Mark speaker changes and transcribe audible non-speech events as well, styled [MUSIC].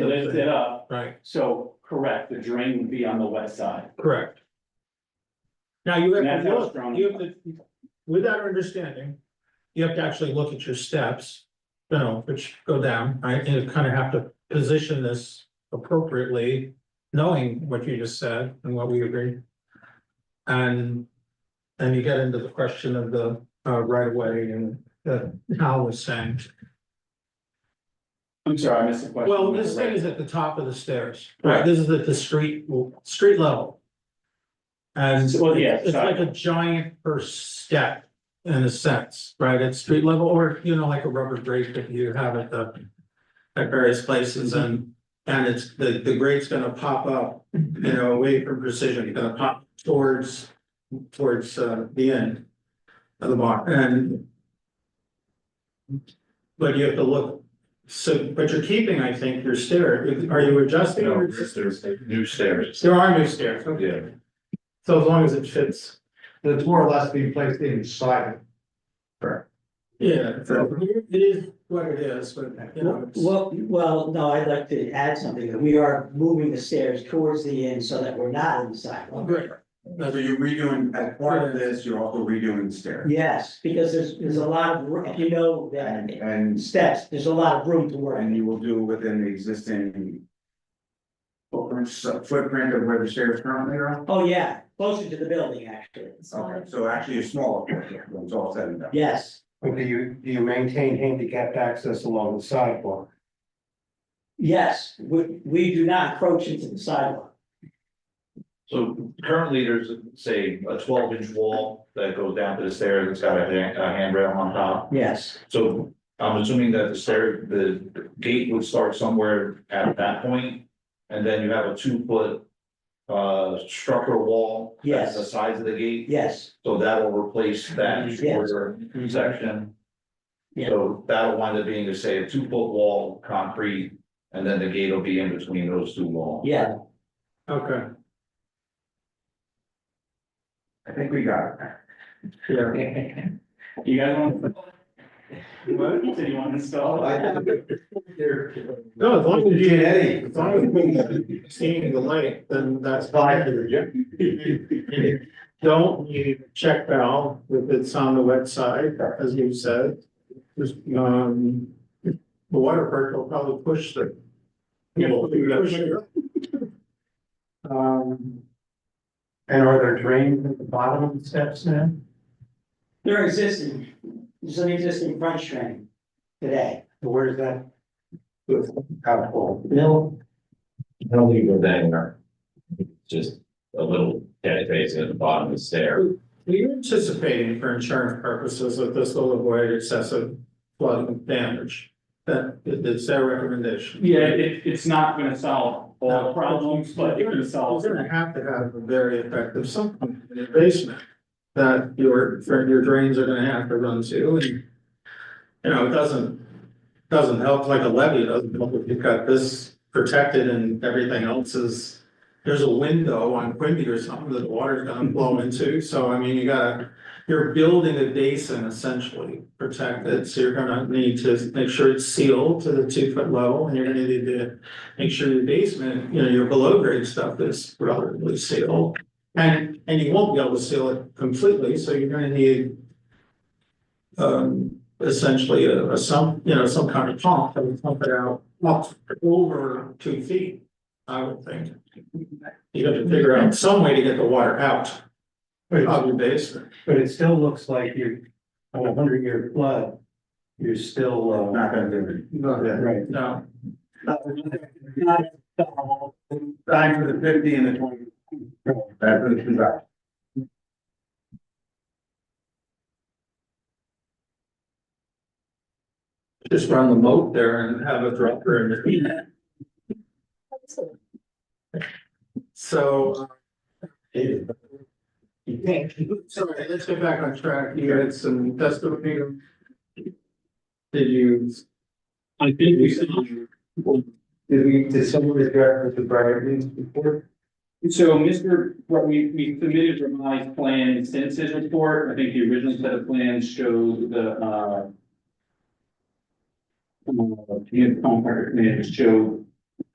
Speaker 1: lift it up,
Speaker 2: Right,
Speaker 1: so correct, the drain would be on the west side.
Speaker 2: correct. Now you
Speaker 1: And
Speaker 2: have
Speaker 1: that's
Speaker 2: to
Speaker 1: how
Speaker 2: look,
Speaker 1: strong-
Speaker 2: you have to, with that understanding, you have to actually look at your steps. You know, which go down, right, and you kind of have to position this appropriately, knowing what you just said and what we agreed. And, and you get into the question of the uh right of way and uh how was saying.
Speaker 1: I'm sorry, I missed the question.
Speaker 2: Well, this thing is at the top of the stairs, right?
Speaker 1: Right.
Speaker 2: This is at the street, street level. And
Speaker 1: So, well, yeah,
Speaker 2: it's like a giant first step in a sense, right? At street level or, you know, like a rubber grate that you have at the. At various places and, and it's, the, the grate's gonna pop up, you know, away from precision, it's gonna pop towards, towards, uh, the end. Of the bar and. But you have to look, so, but you're keeping, I think, your stair, are you adjusting?
Speaker 3: No,
Speaker 2: or-
Speaker 3: there's new stairs.
Speaker 2: There are new stairs, okay.
Speaker 3: Yeah,
Speaker 2: so as long as it fits.
Speaker 4: That's more or less being placed inside.
Speaker 2: Yeah, it is what it is, but you know, it's-
Speaker 5: Well, well, no, I'd like to add something, that we are moving the stairs towards the end so that we're not in the sidewalk.
Speaker 2: Great.
Speaker 6: So you're redoing, as part of this, you're also redoing the stairs.
Speaker 5: Yes, because there's, there's a lot of, ro- you know,
Speaker 6: And,
Speaker 5: that
Speaker 6: and,
Speaker 5: steps, there's a lot of room to work.
Speaker 6: and you will do within the existing footprint, footprint of where the stairs currently are?
Speaker 5: Oh, yeah, closer to the building, actually.
Speaker 6: Okay, so actually a smaller footprint, when it's all said and done.
Speaker 5: Yes,
Speaker 4: Okay, you, do you maintain handicapped access along the sidewalk?
Speaker 5: yes, we, we do not encroach into the sidewalk.
Speaker 3: so currently there's, say, a twelve inch wall that goes down to the stairs, it's got a hand- a handrail on top.
Speaker 5: Yes,
Speaker 3: So I'm assuming that the stair, the gate would start somewhere at that point, and then you have a two foot. Uh, structural wall. that's
Speaker 5: Yes.
Speaker 3: The size of the gate,
Speaker 5: yes,
Speaker 3: so that will replace that
Speaker 5: Yes. Mm-hmm.
Speaker 3: shorter section.
Speaker 5: Yeah.
Speaker 3: So that'll wind up being, say, a two foot wall, concrete, and then the gate will be in between those two walls.
Speaker 5: yeah,
Speaker 2: Okay,
Speaker 6: I think we got it.
Speaker 2: yeah.
Speaker 1: [LAUGHS] You guys want? What? Did you want to install?
Speaker 2: No, as long as you,
Speaker 4: Did Eddie?
Speaker 2: as long as you seeing the light, then that's fine. [LAUGHS] Don't need check valve if it's on the wet side, as you said. Just, um, the water perk will probably push the.
Speaker 1: Yeah, we'll do that.
Speaker 4: Um. And are there drains at the bottom of the steps now?
Speaker 5: they're existing, there's an existing French train today.
Speaker 4: Where is that? Out full.
Speaker 5: Bill?
Speaker 7: I don't think it goes anywhere. Just a little dead face at the bottom of the stair.
Speaker 2: Are you anticipating for insurance purposes that this will avoid excessive flooding damage? That, it's their recommendation.
Speaker 1: Yeah, it, it's not gonna solve all the
Speaker 2: No.
Speaker 1: problems, but it can solve.
Speaker 2: You're gonna have to have a very effective sump pump in your basement. That your, for your drains are gonna have to run to and. You know, it doesn't, doesn't help like a levee, it doesn't help if you've got this protected and everything else is. There's a window on Quimby or something that the water's gonna blow into, so I mean, you gotta, you're building a basin essentially. Protected, so you're gonna need to make sure it's sealed to the two foot level and you're gonna need to make sure your basement, you know, your below grade stuff is relatively sealed. And, and you won't be able to seal it completely, so you're gonna need um, essentially a, a some, you know, some kind of pump that would pump it out, up over two feet, I would think. You have to figure out some way to get the water out
Speaker 4: But it,
Speaker 2: of your basement.
Speaker 4: but it still looks like you're on a hundred year flood. You're still, uh.
Speaker 6: Not gonna do
Speaker 4: Right.
Speaker 2: No,
Speaker 6: it. Time for the fifty and the twenty. That's what it's about.
Speaker 2: just run the moat there and have a dropper in between. So. uh, Sorry, let's get back on track. You had some testimony. Did you?
Speaker 1: I think we still.
Speaker 4: Did we, did someone address the Brighton's before?
Speaker 1: So Mr., what we, we submitted revised plan since his report, I think the original set of plans showed the, uh. Uh, the contractor plan showed